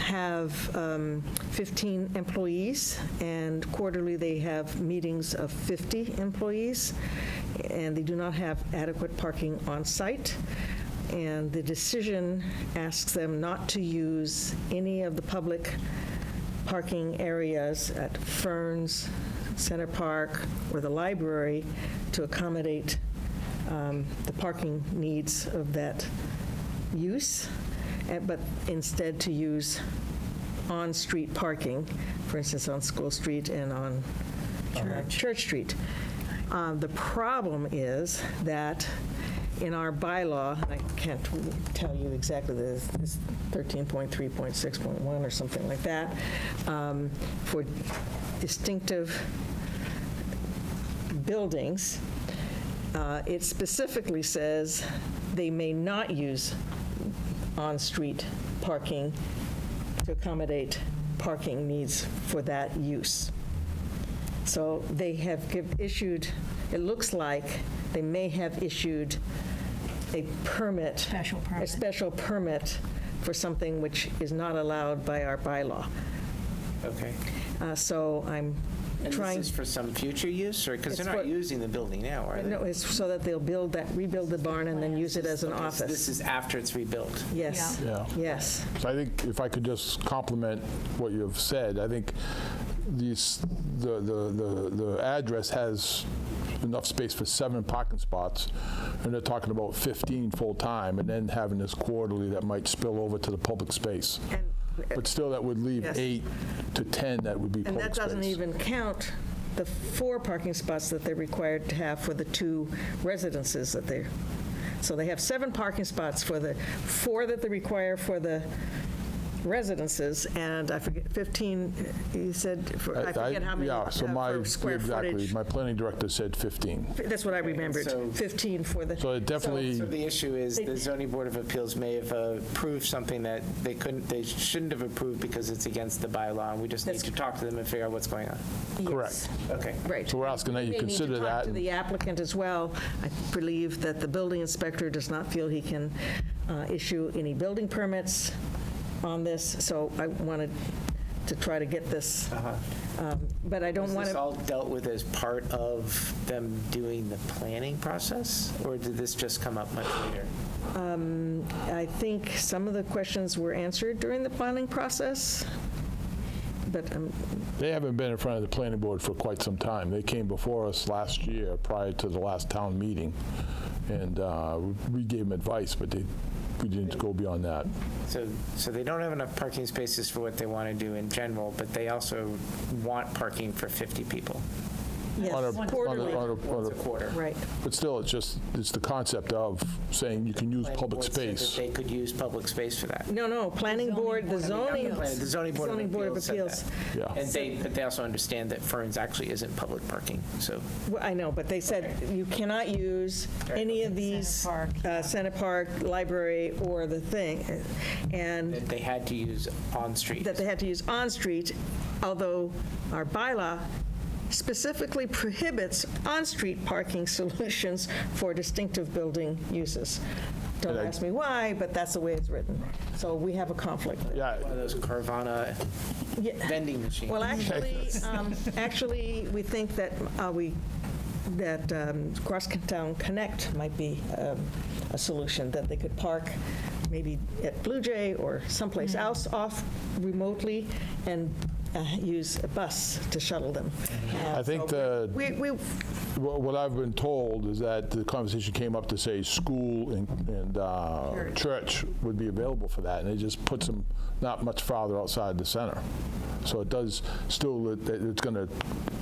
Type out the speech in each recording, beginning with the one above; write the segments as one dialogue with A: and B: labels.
A: have um, 15 employees, and quarterly, they have meetings of 50 employees, and they do not have adequate parking on-site. And the decision asks them not to use any of the public parking areas at Ferns, Center Park, or the library to accommodate um, the parking needs of that use, eh, but instead to use on-street parking, for instance, on School Street and on uh, Church Street. Uh, The problem is that in our bylaw, and I can't tell you exactly this, it's 13.3.6.1 or something like that, um, for distinctive buildings, uh, it specifically says they may not use on-street parking to accommodate parking needs for that use. So they have give- issued, it looks like they may have issued a permit.
B: Special
A: A
B: permit.
A: special permit for something which is not allowed by our bylaw.
C: Okay.
A: Uh, So I'm
C: And
A: trying.
C: this is for some future use, or, because they're
A: It's
C: not
A: for-
C: using the building now, are they?
A: No, it's so that they'll build that, rebuild the barn and then use it as an
C: Okay, so This
A: office.
C: is after it's rebuilt.
A: Yes,
D: Yeah.
A: yes.
D: So I think if I could just compliment what you've said, I think these, the, the, the, the address has enough space for seven parking spots, and they're talking about 15 full-time, and then having this quarterly that might spill over to the public space.
A: And-
D: But still, that would leave
A: Yes.
D: eight to 10 that would be
A: And
D: public
A: that doesn't
D: space.
A: even count the four parking spots that they're required to have for the two residences that they're, so they have seven parking spots for the, four that they require for the residences, and I forget, 15, you said, for- I
D: I- I-
A: forget how many
D: Yeah,
A: uh,
D: so my,
A: for square
D: exactly,
A: footage.
D: my planning director said 15.
A: That's what I remembered,
C: so-
A: 15 for the.
D: So it definitely.
C: So the issue is, the zoning board of appeals may have uh, approved something that they couldn't, they shouldn't have approved because it's against the bylaw, and we just need to talk to them and figure out what's going on.
D: Correct.
C: Okay.
A: Right.
D: So we're asking that you
A: They need to
D: consider
A: talk
D: that
A: to
D: and-
A: the applicant as well. I believe that the building inspector does not feel he can uh, issue any building permits on this, so I wanted to try to get this, Um, but I don't
C: Was
A: want
C: Uh-huh. this
A: to,
C: all dealt with as part of them doing the planning process, or did this just come up much later?
A: I think some of the questions were answered during the planning process, but um,
D: They haven't been in front of the planning board for quite some time. They came before us last year, prior to the last town meeting, and uh, we gave them advice, but they, we didn't go beyond that.
C: So, so they don't have enough parking spaces for what they want to do in general, but they also want parking for 50 people.
D: On a-
A: yes,
D: on a-
A: quarterly,
D: on a- on
C: Once a
D: a-
C: quarter.
A: right.
D: But still, it's just, it's the concept of saying you can use
C: Planning
D: public
C: board said that
D: space.
C: They could use public space for that.
A: No, no, planning board, the zoning.
C: The zoning board
A: Zoning Board of
C: of appeals
A: Appeals.
C: said that.
D: Yeah.
C: And they, but they also understand that Ferns actually isn't public parking, so.
A: Well, I know, but they said you cannot use any of these,
B: Park,
A: uh, Center Park, library, or the thing, and
C: that they had to use on-street.
A: that they had to use on-street, although our bylaw specifically prohibits on-street parking solutions for distinctive building uses. Don't
D: And I-
A: ask me why, but that's the way it's written. So we have a conflict.
D: Yeah,
C: One of those Carvana
A: Yeah.
C: vending machines.
A: Well, actually, um, actually, we think that uh, we, that um, Crosstown Connect might be um, a solution, that they could park maybe at Blue Jay or someplace else off remotely and uh, use a bus to shuttle them.
D: I think the,
A: We, we,
D: wha- what I've been told is that the conversation came up to say school and, and uh, church would be available for that, and it just puts them not much farther outside the center. So it does still, it- it's going to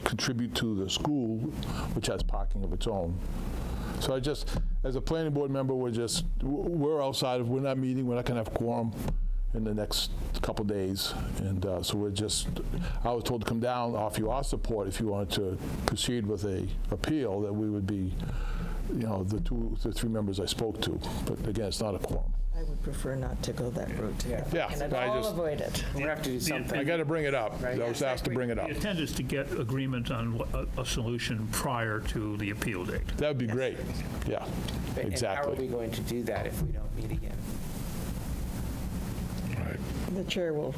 D: contribute to the school, which has parking of its own. So I just, as a planning board member, we're just, w- we're outside of, we're not meeting, we're not going to have quorum in the next couple days. And uh, so we're just, I was told to come down, offer you our support if you wanted to proceed with a appeal, that we would be, you know, the two, the three members I spoke to. But again, it's not a quorum.
A: I would prefer not to go that route.
D: Yeah,
A: And
D: I
A: I'll
D: just-
A: avoid it.
C: We have to do
D: I
C: something.
D: got to bring it up. I was asked to bring it up.
E: The intent is to get agreement on wha- a, a solution prior to the appeal date.
D: That would be great.
C: And how
D: Yeah,
C: are we
D: exactly.
C: going to do that if we don't meet again?
A: The chair will